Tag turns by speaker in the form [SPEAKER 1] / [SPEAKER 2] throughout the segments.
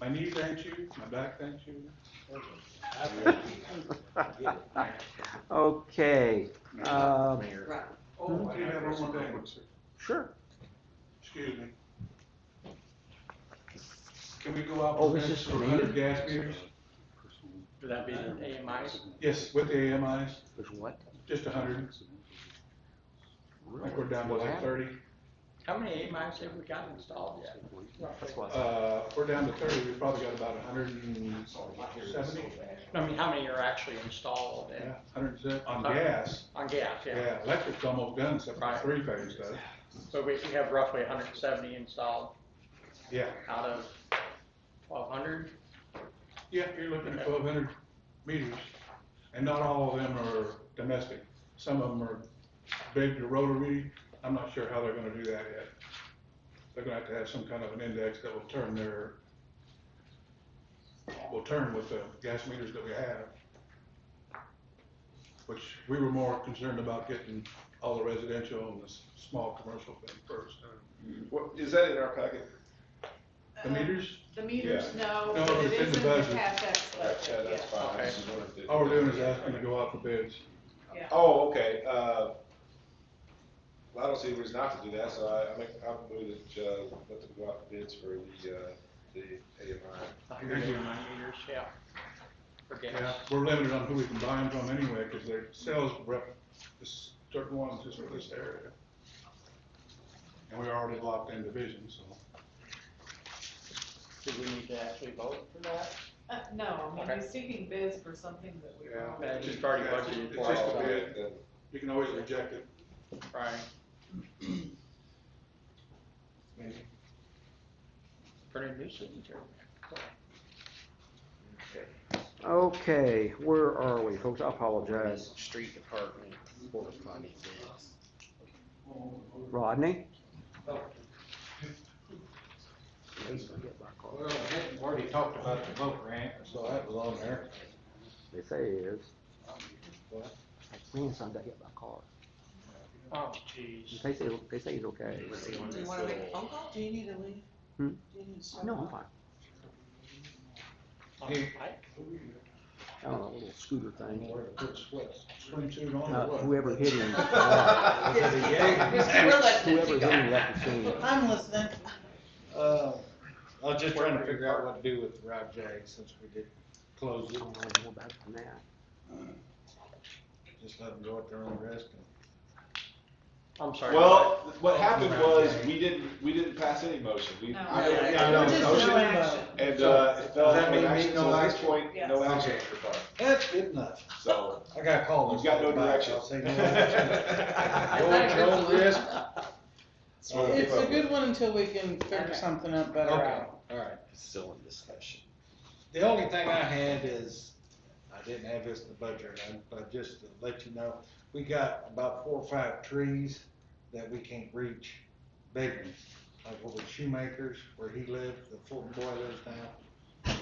[SPEAKER 1] My knee thanks you, my back thanks you.
[SPEAKER 2] Okay, um,
[SPEAKER 3] Right.
[SPEAKER 1] Oh, I do have one more thing, sir.
[SPEAKER 2] sure.
[SPEAKER 1] excuse me. Can we go out
[SPEAKER 2] Oh,
[SPEAKER 1] for
[SPEAKER 2] this
[SPEAKER 1] this
[SPEAKER 2] is
[SPEAKER 1] for
[SPEAKER 2] for me?
[SPEAKER 1] hundred gas meters?
[SPEAKER 4] Would that be an AMIs?
[SPEAKER 1] Yes, with the AMIs,
[SPEAKER 2] There's what?
[SPEAKER 1] just a hundred, I think we're down to
[SPEAKER 2] What
[SPEAKER 1] like
[SPEAKER 2] happened?
[SPEAKER 1] thirty.
[SPEAKER 4] How many AMIs have we got installed yet?
[SPEAKER 2] That's why I said-
[SPEAKER 1] Uh, if we're down to thirty, we've probably got about hundred and seventy,
[SPEAKER 4] I mean, how many are actually installed and
[SPEAKER 1] yeah, hundred and seventy, on
[SPEAKER 4] Uh,
[SPEAKER 1] gas.
[SPEAKER 4] on gas, yeah?
[SPEAKER 1] Yeah, electric's almost done, except for
[SPEAKER 4] Right.
[SPEAKER 1] three phase stuff,
[SPEAKER 4] So we we have roughly hundred and seventy installed
[SPEAKER 1] yeah.
[SPEAKER 4] out of twelve hundred?
[SPEAKER 1] Yeah, you're looking at twelve hundred meters, and not all of them are domestic. Some of them are big to rotary, I'm not sure how they're gonna do that yet. They're gonna have to have some kind of an index that will turn their, will turn with the gas meters that we have. Which, we were more concerned about getting all the residential and the s- small commercial thing first.
[SPEAKER 5] What, is that in our packet?
[SPEAKER 1] The meters,
[SPEAKER 3] Um, The meters, no,
[SPEAKER 1] No,
[SPEAKER 3] but it
[SPEAKER 1] it's in
[SPEAKER 3] is
[SPEAKER 1] the
[SPEAKER 3] in the
[SPEAKER 1] budget.
[SPEAKER 3] CapEx
[SPEAKER 5] Yeah,
[SPEAKER 3] budget,
[SPEAKER 5] that's fine. This is what I did.
[SPEAKER 1] all
[SPEAKER 6] Oh,
[SPEAKER 1] we're doing is asking to go out for bids.
[SPEAKER 3] yeah, yeah.
[SPEAKER 5] Oh, okay, uh, well, I don't see a reason not to do that, so I, I make, I move that, uh, let them go out for bids for the, uh, the AMI.
[SPEAKER 4] hundred and nine meters, yeah. For
[SPEAKER 1] Yeah,
[SPEAKER 4] gas.
[SPEAKER 1] we're limited on who we can buy them from anyway, because their sales rep, this certain ones just for this area. And we're already locked in division, so.
[SPEAKER 4] Do we need to actually vote for that?
[SPEAKER 3] Uh, no, I mean,
[SPEAKER 4] Okay.
[SPEAKER 3] you're seeking bids for something that we
[SPEAKER 1] Yeah.
[SPEAKER 3] already.
[SPEAKER 4] That's just already budgeted
[SPEAKER 1] It's
[SPEAKER 4] for.
[SPEAKER 1] just a
[SPEAKER 4] so-
[SPEAKER 1] bid.
[SPEAKER 5] And
[SPEAKER 1] You can always reject it.
[SPEAKER 4] Right.
[SPEAKER 1] Maybe.
[SPEAKER 4] Pretty new signature. Cool.
[SPEAKER 2] Okay, where are we, folks? I apologize.
[SPEAKER 7] Street Department corresponding bids.
[SPEAKER 2] Rodney?
[SPEAKER 6] Well, we already talked about the boat ramp, so that was on there.
[SPEAKER 2] They say it is. Means something I hit my car.
[SPEAKER 4] Oh, jeez.
[SPEAKER 2] They say, they say he's okay.
[SPEAKER 7] It was the one
[SPEAKER 3] Do you
[SPEAKER 7] that's
[SPEAKER 3] wanna make a
[SPEAKER 7] little,
[SPEAKER 3] phone call? Do you need to leave?
[SPEAKER 2] Hmm?
[SPEAKER 3] Do you need to step
[SPEAKER 2] No, I'm
[SPEAKER 3] out?
[SPEAKER 2] fine.
[SPEAKER 4] On the bike?
[SPEAKER 2] I don't know, a little scooter thing.
[SPEAKER 6] Where to put sweats.
[SPEAKER 1] Swimsuit on
[SPEAKER 2] Uh,
[SPEAKER 1] or what?
[SPEAKER 2] Whoever hit him. uh,
[SPEAKER 3] We're letting it
[SPEAKER 2] Whoever
[SPEAKER 3] go.
[SPEAKER 2] hit him left the scene.
[SPEAKER 6] I'm listening. Uh, I was just trying to figure out what to do with the Rob Jag since we did close
[SPEAKER 2] I
[SPEAKER 6] it,
[SPEAKER 2] don't know more about it than that.
[SPEAKER 6] just let them go at their own risk. and-
[SPEAKER 4] I'm sorry.
[SPEAKER 5] Well, what happened was, we didn't, we didn't pass any motion, we.
[SPEAKER 3] No.
[SPEAKER 5] I-
[SPEAKER 6] Yeah,
[SPEAKER 5] I-
[SPEAKER 6] yeah,
[SPEAKER 5] I-
[SPEAKER 6] no
[SPEAKER 3] We're just
[SPEAKER 6] motion.
[SPEAKER 3] no action.
[SPEAKER 5] And, uh, it fell
[SPEAKER 6] Does that
[SPEAKER 5] into
[SPEAKER 6] mean
[SPEAKER 5] action,
[SPEAKER 6] no
[SPEAKER 5] so at this
[SPEAKER 6] action?
[SPEAKER 5] point, no
[SPEAKER 3] Yes.
[SPEAKER 5] action for part,
[SPEAKER 6] That's good enough.
[SPEAKER 5] so,
[SPEAKER 6] I gotta call
[SPEAKER 5] you've
[SPEAKER 6] this.
[SPEAKER 5] got no
[SPEAKER 6] guy back.
[SPEAKER 5] direction.
[SPEAKER 6] I'll say no action. Go at your own risk.
[SPEAKER 5] Well,
[SPEAKER 8] It's
[SPEAKER 5] give
[SPEAKER 8] a
[SPEAKER 5] up.
[SPEAKER 8] good one until we can
[SPEAKER 3] Okay.
[SPEAKER 8] figure something up better
[SPEAKER 6] Okay.
[SPEAKER 8] out.
[SPEAKER 6] All right.
[SPEAKER 7] it's still in discussion.
[SPEAKER 6] The only thing I had is, I didn't have this in the budget, I- but just to let you know, we got about four or five trees that we can't reach, big ones. Like over at Shoemaker's, where he lived, the Fulton boy lives now,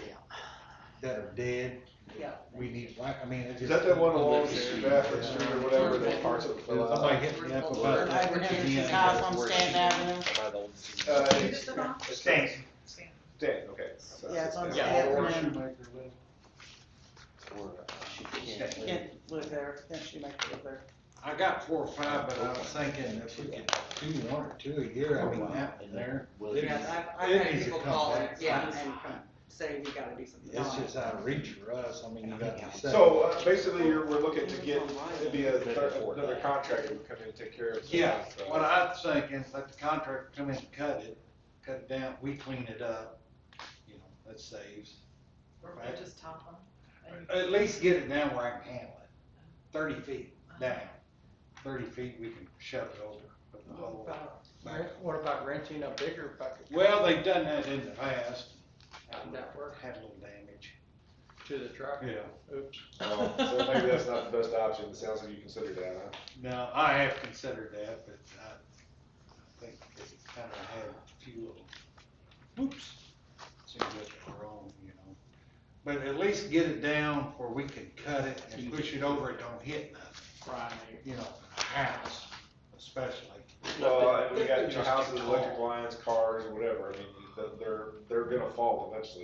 [SPEAKER 6] that are dead.
[SPEAKER 3] Yeah.
[SPEAKER 6] We need, like, I mean, it's
[SPEAKER 5] is
[SPEAKER 6] just.
[SPEAKER 5] that that one along Stafford Street or whatever, that parts of it fell out?
[SPEAKER 6] Somebody hit me up about
[SPEAKER 8] Over
[SPEAKER 6] that.
[SPEAKER 8] near his house on Stanton Avenue.
[SPEAKER 7] By the old.
[SPEAKER 5] Uh,
[SPEAKER 3] Who's
[SPEAKER 5] it's-
[SPEAKER 3] the boss?
[SPEAKER 5] it's-
[SPEAKER 6] Stan.
[SPEAKER 5] Stan, okay. So
[SPEAKER 8] Yeah, it's on
[SPEAKER 4] Yeah.
[SPEAKER 8] Stanton
[SPEAKER 6] Or
[SPEAKER 8] Avenue.
[SPEAKER 6] Shoemaker lived.
[SPEAKER 7] Or, uh, she can't
[SPEAKER 8] Can't
[SPEAKER 7] live.
[SPEAKER 8] live there, can't she make it live there?
[SPEAKER 6] I got four or five, but I was thinking if we could do one or two a year, I mean, that one there.
[SPEAKER 7] Will
[SPEAKER 6] It
[SPEAKER 7] you-
[SPEAKER 6] is-
[SPEAKER 8] Yeah,
[SPEAKER 6] I've- I've had it needs to people come call back. and- yeah,
[SPEAKER 8] and say we gotta do something
[SPEAKER 6] It's just out of reach for us, I mean, you got to say.
[SPEAKER 5] So, uh, basically, you're, we're looking to get, it'd be a third, another contractor would come in and take care of it.
[SPEAKER 6] Yeah,
[SPEAKER 5] So-
[SPEAKER 6] what I'm thinking, let the contractor come in and cut it, cut it down, we clean it up, you know, that saves.
[SPEAKER 3] Or we'll just top them.
[SPEAKER 6] At least get it down where I can handle it, thirty feet down, thirty feet, we can shove it over with the
[SPEAKER 3] What
[SPEAKER 6] whole.
[SPEAKER 3] about-
[SPEAKER 4] What about renting a bigger bucket
[SPEAKER 6] Well, they've done that in the past.
[SPEAKER 4] How'd that work?
[SPEAKER 6] Had a little damage.
[SPEAKER 4] to the truck?
[SPEAKER 1] Yeah.
[SPEAKER 4] Oops.
[SPEAKER 5] Well, Oh, So maybe that's not the best option, it sounds like you considered that, huh?
[SPEAKER 6] No, I have considered that, but I I think they kind of had a few little, whoops, seemed like were wrong, you know. But at least get it down where we can cut it and push it over, it don't hit nothing,
[SPEAKER 4] Right.
[SPEAKER 6] you know, a house especially.
[SPEAKER 5] uh, Well, and we got, you know, houses, electric lines, cars, whatever, I mean, they're, they're gonna fall eventually.